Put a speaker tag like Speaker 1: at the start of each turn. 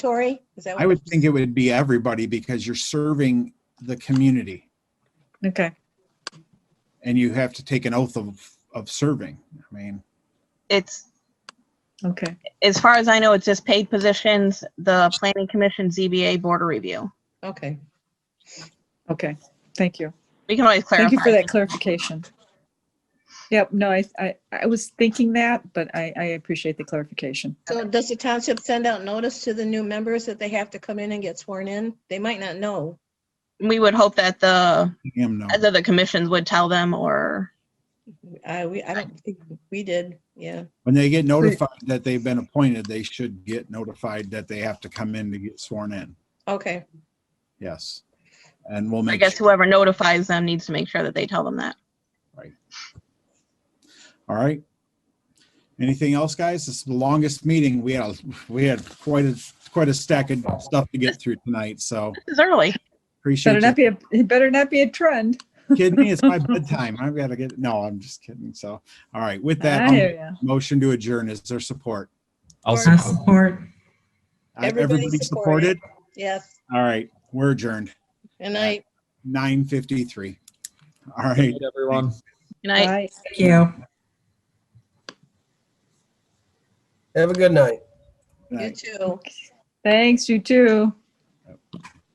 Speaker 1: Tori? Is
Speaker 2: Oh,
Speaker 1: that
Speaker 3: I
Speaker 1: what?
Speaker 3: would think it would be everybody because you're serving the community
Speaker 4: Okay.
Speaker 3: and you have to take an oath of, of serving. I mean,
Speaker 2: It's,
Speaker 4: Okay.
Speaker 2: as far as I know, it's just paid positions, the planning commission, ZBA, board of review.
Speaker 1: Okay.
Speaker 4: Okay. Thank you.
Speaker 2: We can always clarify.
Speaker 4: Thank you for that clarification. Yep. No, I, I, I was thinking that, but I, I appreciate the clarification.
Speaker 1: So does the township send out notice to the new members that they have to come in and get sworn in? They might not know.
Speaker 2: We would hope that the,
Speaker 3: him no.
Speaker 2: either the commissions would tell them or,
Speaker 1: I, we, I don't think we did, yeah.
Speaker 3: When they get notified that they've been appointed, they should get notified that they have to come in to get sworn in.
Speaker 1: Okay,
Speaker 3: Yes. And we'll
Speaker 2: I
Speaker 3: make,
Speaker 2: guess
Speaker 3: sure-
Speaker 2: whoever notifies them needs to make sure that they tell them that.
Speaker 3: all right. Anything else, guys? This is the longest meeting. We had, we had quite a, quite a stack of stuff to get through tonight, so
Speaker 2: This is early.
Speaker 3: appreciate
Speaker 4: Better
Speaker 3: you.
Speaker 4: not be a, it better not be a trend.
Speaker 3: Kidding me? It's my bedtime. I've got to get, no, I'm just kidding. So, all right, with that,
Speaker 4: I
Speaker 3: I'll
Speaker 4: hear ya.
Speaker 3: Motion to adjourn. Is there support?
Speaker 5: I'll
Speaker 1: Or-
Speaker 5: support.
Speaker 3: Uh,
Speaker 1: Everybody
Speaker 3: Everybody
Speaker 1: supported.
Speaker 3: supported?
Speaker 1: yes,
Speaker 3: All right, we're adjourned.
Speaker 1: and I,
Speaker 3: Nine fifty-three. All right.
Speaker 5: Good night, everyone.
Speaker 2: Good night.
Speaker 4: Bye.
Speaker 6: Thank you.
Speaker 7: Have a good night.
Speaker 1: you
Speaker 3: night.
Speaker 1: too.
Speaker 4: Thanks, you too.